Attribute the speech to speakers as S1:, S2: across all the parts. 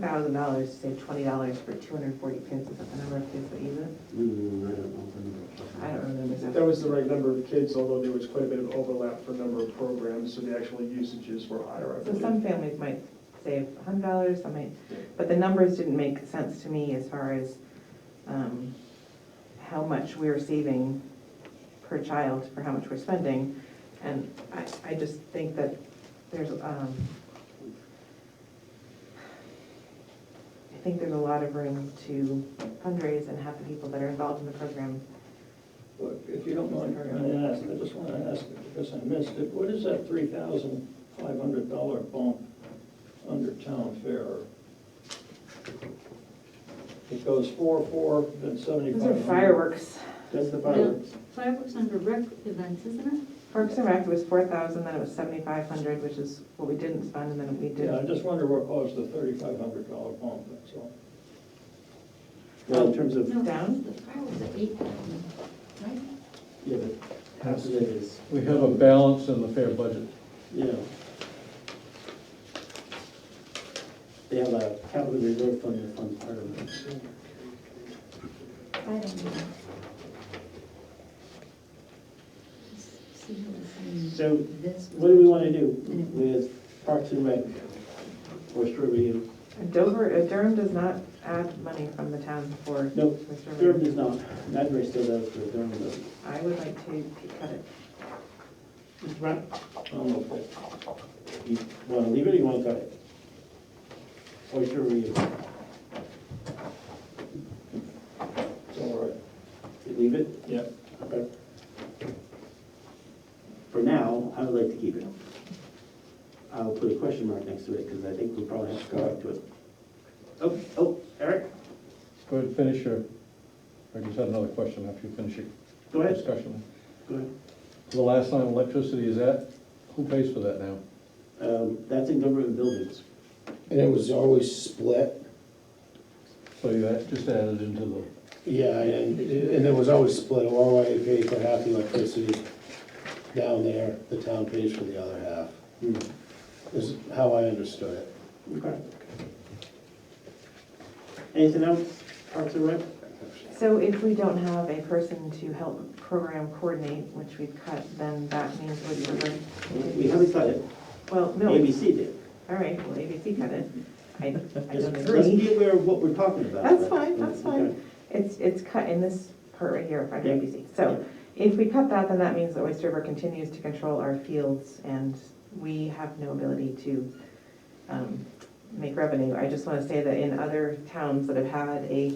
S1: thousand dollars to save twenty dollars for two hundred and forty kids, is that the number of kids that use it?
S2: Mm, I don't know. if I know.
S1: I don't remember
S3: That
S1: exactly.
S3: was the right number of kids, although there was quite a bit of overlap for number of programs, so the actual usages were higher, I
S1: So
S3: believe.
S1: some families might save a hundred dollars, some might, but the numbers didn't make sense to me as far as, um, how much we're saving per child for how much we're spending. And I, I just think that there's, um, I think there's a lot of room to fundraise and have the people that are involved in the program
S4: Look, if you don't mind, I ask, I just want to ask, it because I missed it, what is that three thousand five hundred dollar bump under town fare? It goes four, four, then
S1: Those
S4: seventy-five
S1: are
S4: hundred.
S1: fireworks.
S3: That's the
S5: fireworks. Fireworks under rec events, isn't it?
S1: Parks and Rec was four thousand, then it was seventy-five hundred, which is what we didn't spend, and then we
S4: Yeah, I
S1: did.
S4: just wonder what caused the thirty-five hundred dollar bump, that's all.
S2: Well, in terms of,
S5: No,
S1: Down?
S5: The fireworks are eight thousand, right?
S2: yeah, but half of it is,
S6: We have a balance in the fair budget.
S2: yeah. They have a capital reserve fund to fund part of it.
S5: I don't know. Just see how it's in
S2: So
S5: this
S2: what do we want to do
S5: Mm.
S2: with Parks and Rec or Shore Review?
S1: Dover, uh, Durham does not add money from the town for.
S2: Nope,
S1: Mr.
S2: Durham
S1: Ray.
S2: does not, Madbury still does, but Durham doesn't.
S1: I would like to cut it.
S2: Mr. Brown?
S4: I'm okay.
S2: You want to leave it or you want to cut it? Or Shore Review?
S4: It's all right.
S2: You Leave it?
S4: Yeah.
S2: Okay. For now, I would like to keep it. I'll put a question mark next to it, because I think we'll probably have to go back to it. Oh, oh, Eric,
S6: Go ahead, finish your, I just had another question after you finish
S2: go
S6: your
S2: ahead,
S6: discussion.
S2: go ahead.
S6: The last line, electricity is at, who pays for that now?
S2: Um, that's in government buildings.
S7: And it was always split?
S6: So you add- just added into the,
S7: Yeah, and, and it was always split, Orway paid for half the electricity down there, the town pays for the other half,
S2: Hmm,
S7: is how I understood it.
S2: Okay. Anything else, Parks and Rec?
S1: So if we don't have a person to help program coordinate, which we've cut, then that means Wood
S2: We
S1: River.
S2: haven't cut it,
S1: Well, no, all
S2: ABC did.
S1: right, well, ABC cut it. I, I
S2: Just-
S1: don't
S2: Let's
S1: agree.
S2: be aware of what we're talking about.
S1: That's fine, that's
S2: Okay.
S1: fine. It's, it's cut in this part right here, five
S2: Yeah.
S1: ABC. So if we cut that, then that means that Oyster River continues to control our fields and we have no ability to um, make revenue. I just want to say that in other towns that have had a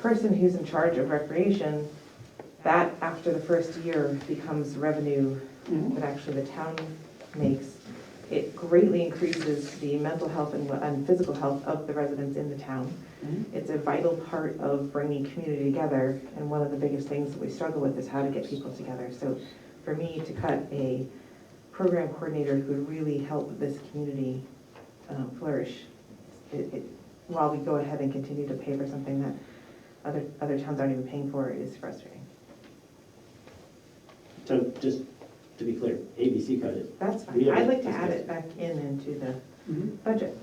S1: person who's in charge of recreation, that after the first year becomes revenue
S2: Mhm.
S1: that actually the town makes. It greatly increases the mental health and, and physical health of the residents in the town.
S2: Mhm.
S1: It's a vital part of bringing community together, and one of the biggest things that we struggle with is how to get people together. So for me to cut a program coordinator who would really help this community um, flourish, it, it, while we go ahead and continue to pay for something that other, other towns aren't even paying for, is frustrating.
S2: So just to be clear, ABC cut it.
S1: That's fine.
S2: Yeah,
S1: I'd like to
S2: that's
S1: add
S2: good.
S1: it back in into the budget.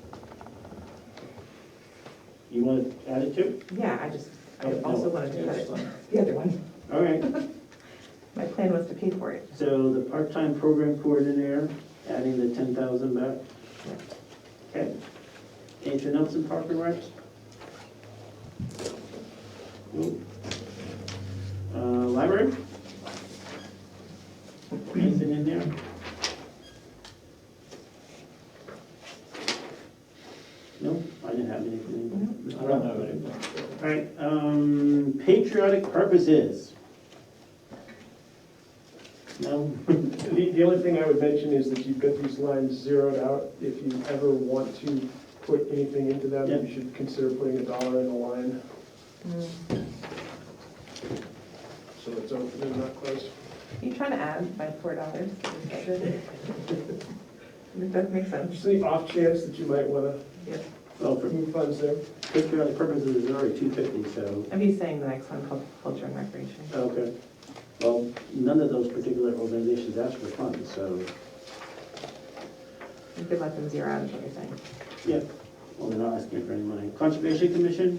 S2: You want to add it too?
S1: Yeah, I just, I
S2: Oh, no.
S1: also wanted to cut
S4: Yes,
S1: it,
S4: fine.
S1: the other one.
S2: All right,
S1: My plan was to pay for it.
S2: so the part-time program coordinator, adding the ten thousand back. Okay. Anything else in Park and Rec? Nope. Uh, library? Anything in there? No, I didn't have anything.
S4: I don't have anything.
S2: All right, um, patriotic purposes. No?
S3: The, the only thing I would mention is that you've got these lines zeroed out. If you ever want to put anything into them,
S2: Yeah.
S3: you should consider putting a dollar in a line,
S1: Mm.
S3: so it's, over- they're not close.
S1: You trying to add by four dollars? It does make sense.
S3: Just the off chance that you might want
S1: Yep.
S2: Well,
S3: to
S2: for
S3: move funds there.
S2: patriotic purposes, it's already two fifty, so,
S1: I'd be saying the next one called culture and recreation.
S2: okay. Well, none of those particular organizations ask for funds, so,
S1: You could let them zero out is what you're saying.
S2: yeah. Well, they're not asking for any money. Conservation Commission,